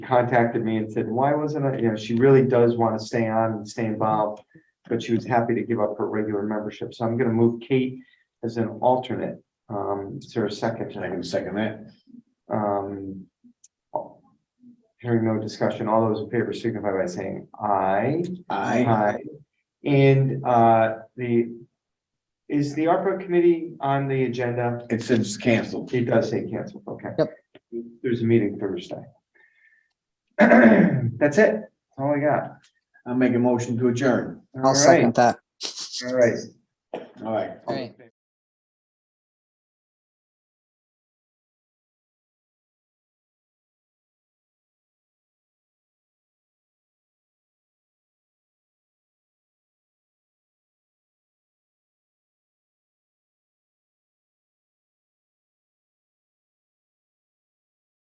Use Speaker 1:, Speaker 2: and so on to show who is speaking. Speaker 1: contacted me and said, why wasn't I, you know, she really does want to stay on and stay involved, but she was happy to give up her regular membership. So I'm going to move Kate as an alternate. Um, is there a second?
Speaker 2: I can second that.
Speaker 1: Um. Hearing no discussion, all those in favor signify by saying aye.
Speaker 2: I,
Speaker 1: And uh, the, is the ARPA committee on the agenda?
Speaker 2: it's since canceled.
Speaker 1: It does say canceled, okay.
Speaker 3: Yep.
Speaker 1: There's a meeting Thursday. That's it, that's all I got.
Speaker 2: I'll make a motion to adjourn.
Speaker 1: All
Speaker 3: I'll second that.
Speaker 1: right, All right.
Speaker 2: All right.
Speaker 1: All in favor?